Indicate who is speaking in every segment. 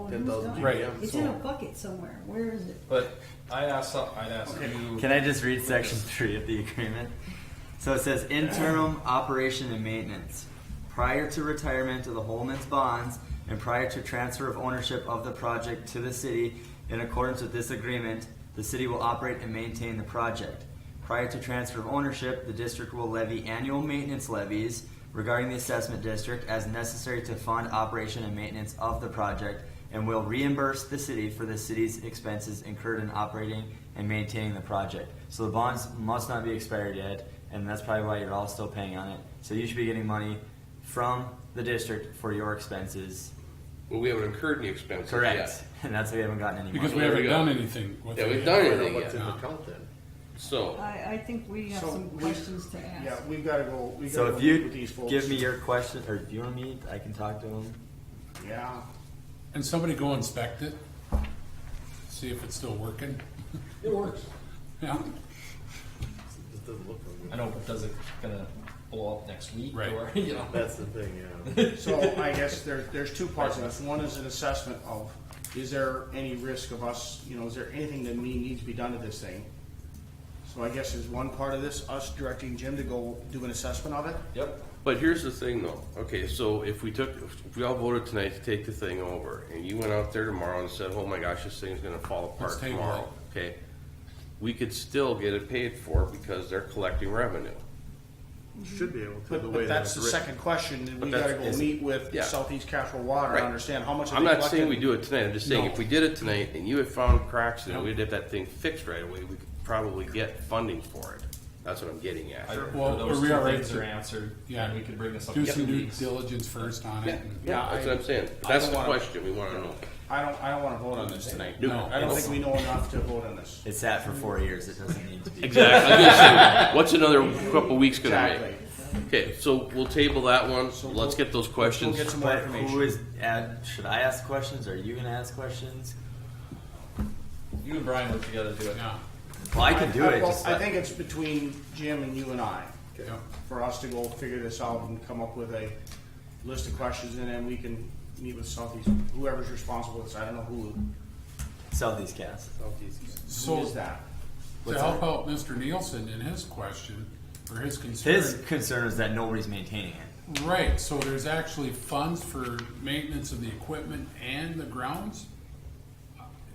Speaker 1: one.
Speaker 2: Ten thousand
Speaker 1: It's
Speaker 3: Right.
Speaker 1: gone. It's in a bucket somewhere. Where is it?
Speaker 3: But I asked, some- I'd ask you.
Speaker 4: Can I just read section three of the agreement? So it says interim operation and maintenance. Prior to retirement of the Holman's bonds and prior to transfer of ownership of the project to the city, in accordance with this agreement, the city will operate and maintain the project. Prior to transfer of ownership, the district will levy annual maintenance levies regarding the assessment district as necessary to fund operation and maintenance of the project and will reimburse the city for the city's expenses incurred in operating and maintaining the project. So the bonds must not be expired yet, and that's probably why you're all still paying on it. So you should be getting money from the district for your expenses.
Speaker 2: Well, we haven't incurred any expenses
Speaker 4: Correct.
Speaker 2: yet.
Speaker 4: And that's why we haven't gotten any
Speaker 5: Because
Speaker 4: money.
Speaker 5: we
Speaker 2: There we
Speaker 5: haven't
Speaker 2: go.
Speaker 5: done anything with
Speaker 2: Yeah,
Speaker 5: it
Speaker 2: we've
Speaker 5: yet.
Speaker 2: done
Speaker 5: Yeah.
Speaker 2: anything
Speaker 5: Yeah.
Speaker 2: yet. account then. So,
Speaker 1: I, I think we have
Speaker 6: So
Speaker 1: some
Speaker 6: we-
Speaker 1: questions to ask.
Speaker 6: Yeah, we've gotta go, we
Speaker 4: So
Speaker 6: gotta go
Speaker 4: if
Speaker 6: meet
Speaker 4: you
Speaker 6: with these folks.
Speaker 4: give me your question, or if you want to meet, I can talk to them.
Speaker 6: Yeah,
Speaker 5: And somebody go inspect it, see if it's still working.
Speaker 7: It works.
Speaker 5: Yeah,
Speaker 7: It doesn't look like
Speaker 3: I know, but does it gonna blow up next week?
Speaker 5: Right.
Speaker 3: Or, you know,
Speaker 7: it. That's the thing, yeah.
Speaker 6: so I guess there, there's two parts of this. One is an assessment of, is there any risk of us, you know, is there anything that we needs to be done to this thing? So I guess is one part of this, us directing Jim to go do an assessment of it?
Speaker 3: yep.
Speaker 2: but here's the thing though. Okay, so if we took, if we all voted tonight to take the thing over and you went out there tomorrow and said, oh my gosh, this thing's gonna fall apart
Speaker 5: Let's table
Speaker 2: tomorrow, okay? We could still get it paid for because they're collecting revenue.
Speaker 7: Should be able to, the
Speaker 6: But,
Speaker 7: way
Speaker 6: but
Speaker 7: that it's
Speaker 6: that's
Speaker 7: written.
Speaker 6: the second question, that we
Speaker 2: But
Speaker 6: gotta
Speaker 2: that's-
Speaker 6: go
Speaker 2: is-
Speaker 6: meet with
Speaker 2: yeah.
Speaker 6: Southeast Casserole Water,
Speaker 2: Right.
Speaker 6: and understand how much are
Speaker 2: I'm
Speaker 6: they
Speaker 2: not saying we
Speaker 6: collecting?
Speaker 2: do it tonight, I'm just saying
Speaker 5: No.
Speaker 2: if we did it tonight and you had found cracks and we'd have that thing fixed right away, we could probably get funding for it. That's what I'm getting at.
Speaker 3: I-
Speaker 5: Well,
Speaker 3: those
Speaker 5: are we
Speaker 3: two
Speaker 5: all right
Speaker 3: things
Speaker 5: to-
Speaker 3: are answered.
Speaker 5: Yeah.
Speaker 3: And we could bring this up
Speaker 5: do
Speaker 3: in
Speaker 5: some
Speaker 3: two
Speaker 5: due
Speaker 3: weeks.
Speaker 5: diligence first on it. and-
Speaker 2: Yeah, that's what I'm saying.
Speaker 6: I
Speaker 2: That's
Speaker 6: don't
Speaker 2: the
Speaker 6: wanna-
Speaker 2: question we wanna know.
Speaker 6: I don't, I don't wanna vote on this tonight.
Speaker 5: No.
Speaker 6: I don't think we know enough to vote on this.
Speaker 4: It sat for four years. It doesn't need to be.
Speaker 2: Exactly. I was gonna say, What's another couple weeks gonna
Speaker 6: Exactly.
Speaker 2: make? Okay, so we'll table that one.
Speaker 6: So
Speaker 2: Let's
Speaker 6: we'll-
Speaker 2: get those
Speaker 6: We'll
Speaker 2: questions.
Speaker 6: get some more
Speaker 4: But who
Speaker 6: information.
Speaker 4: is? Ad, should I ask questions? Are you going to ask questions?
Speaker 3: You and Brian work together to do it.
Speaker 5: Yeah,
Speaker 4: Well, I can do
Speaker 6: I-
Speaker 4: it.
Speaker 6: well,
Speaker 4: just
Speaker 6: I
Speaker 4: let-
Speaker 6: think it's between Jim and you and I,
Speaker 5: yeah.
Speaker 6: for us to go figure this out and come up with a list of questions, and then we can meet with Southeast, whoever's responsible with this, I don't know who,
Speaker 4: Southeast Cass.
Speaker 6: who
Speaker 5: So
Speaker 6: is that?
Speaker 5: to help out Mr. Nielsen in his question, or his
Speaker 4: His
Speaker 5: concern.
Speaker 4: concern is that nobody's maintaining it.
Speaker 5: Right, so there's actually funds for maintenance of the equipment and the grounds?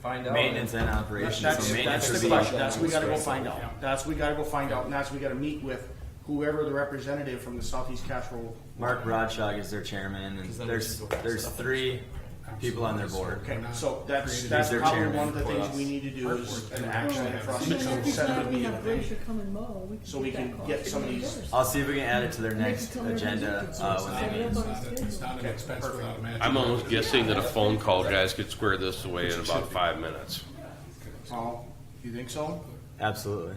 Speaker 3: Find out.
Speaker 4: Maintenance and operations.
Speaker 6: That's,
Speaker 4: so maintenance
Speaker 6: that's
Speaker 4: would
Speaker 6: the
Speaker 4: be-
Speaker 6: question, that's, we gotta go find
Speaker 5: Yeah.
Speaker 6: out, that's, we gotta go find out, and that's, we gotta meet with whoever the representative from the Southeast Casserole.
Speaker 4: Mark Rodshog is their chairman, and
Speaker 3: then
Speaker 4: there's
Speaker 3: we can go
Speaker 4: there's
Speaker 3: set up
Speaker 4: three people on their board.
Speaker 6: Okay,
Speaker 5: We're not
Speaker 6: so that's,
Speaker 5: created
Speaker 6: that's
Speaker 4: as their
Speaker 6: probably
Speaker 4: chairman
Speaker 6: one of the
Speaker 4: for
Speaker 6: things
Speaker 4: us.
Speaker 6: we need to do is an action for us
Speaker 1: You
Speaker 6: to
Speaker 1: know, every
Speaker 6: set up a
Speaker 1: time we
Speaker 6: meeting.
Speaker 1: have Glacier come and mow, we can
Speaker 6: So
Speaker 1: do
Speaker 6: we
Speaker 1: that
Speaker 6: can
Speaker 1: call.
Speaker 6: get some of these-
Speaker 4: I'll see if we can add it to their
Speaker 1: And they
Speaker 4: next
Speaker 1: can tell everybody
Speaker 4: agenda
Speaker 1: it's
Speaker 4: uh,
Speaker 1: just
Speaker 4: when
Speaker 1: set
Speaker 4: they
Speaker 1: it
Speaker 4: meet.
Speaker 1: up
Speaker 5: It's
Speaker 1: on
Speaker 5: not-
Speaker 1: schedule.
Speaker 5: It's not an expense without a match.
Speaker 2: I'm almost guessing that a phone call, guys, could square this away in about five minutes.
Speaker 6: Oh, you think so?
Speaker 4: Absolutely.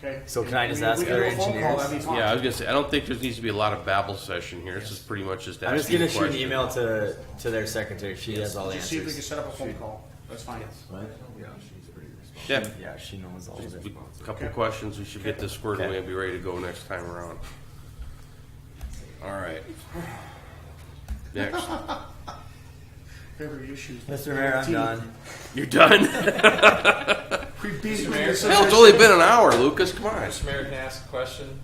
Speaker 6: Okay.
Speaker 4: So can I
Speaker 6: If
Speaker 4: just
Speaker 6: we-
Speaker 4: ask
Speaker 6: we can do
Speaker 4: our
Speaker 6: a phone call,
Speaker 4: engineers?
Speaker 6: that'd be fine.
Speaker 2: Yeah, I was gonna say, I don't think there needs to be a lot of babble session here. This is pretty much just
Speaker 4: I'm just
Speaker 2: asking
Speaker 4: gonna
Speaker 2: a
Speaker 4: shoot an
Speaker 2: question.
Speaker 4: email to to their secretary. She has all the
Speaker 6: Just see if we can
Speaker 4: answers.
Speaker 6: set up a phone call. That's fine.
Speaker 4: What?
Speaker 2: Yeah,
Speaker 4: Yeah, she knows all of it.
Speaker 2: a couple questions. We should get this squared away and be ready to go next time around. All right. Next.
Speaker 6: Paper issues.
Speaker 4: Mr. Mayor, I'm done.
Speaker 2: You're done?
Speaker 6: We beat you
Speaker 3: Mayor.
Speaker 6: this
Speaker 2: Hell, it's only been an hour, Lucas. Come on.
Speaker 3: Mr. Mayor, can I ask a question?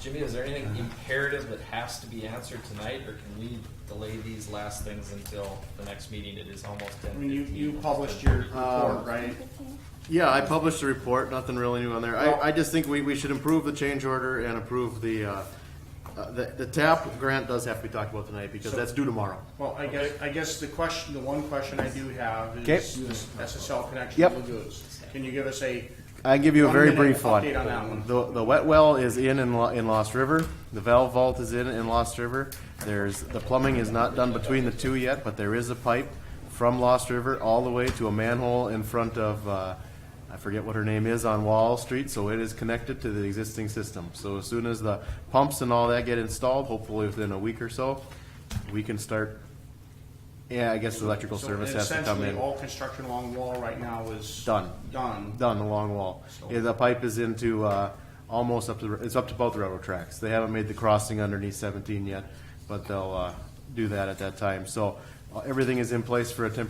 Speaker 3: Jimmy, is there anything imperative that has to be answered tonight, or can we delay these last things until the next meeting? It is almost ten.
Speaker 6: I mean, you, you published your report, right?
Speaker 7: Yeah, I published a report, nothing really new on there. I, I just think we, we should improve the change order and approve the, uh, uh, the, the TAP grant does have to be talked about tonight because that's due tomorrow.
Speaker 6: Well, I guess, I guess the question, the one question I do have is
Speaker 7: Okay.
Speaker 6: this SSL connection
Speaker 7: Yep.
Speaker 6: to lagoons. Can you give us a,
Speaker 7: I can give you a
Speaker 6: One
Speaker 7: very
Speaker 6: minute
Speaker 7: brief one.
Speaker 6: update on that one.
Speaker 7: The, the wet well is in in, Lo- in Lost River. The valve vault is in in Lost River. There's the plumbing is not done between the two yet, but there is a pipe from Lost River all the way to a manhole in front of uh, I forget what her name is on Wall Street. So it is connected to the existing system. So as soon as the pumps and all that get installed, hopefully within a week or so, we can start. Yeah, I guess electrical
Speaker 6: so
Speaker 7: service has to come
Speaker 6: essentially
Speaker 7: in
Speaker 6: all construction along the wall right now is.
Speaker 7: um, Done.
Speaker 6: Done.
Speaker 7: down the long wall. Yeah, the pipe is into, uh, almost up to, the- it's up to both railroad tracks. They haven't made the crossing underneath seventeen yet, but they'll, uh, do that at that time. So, everything is in place for a temporary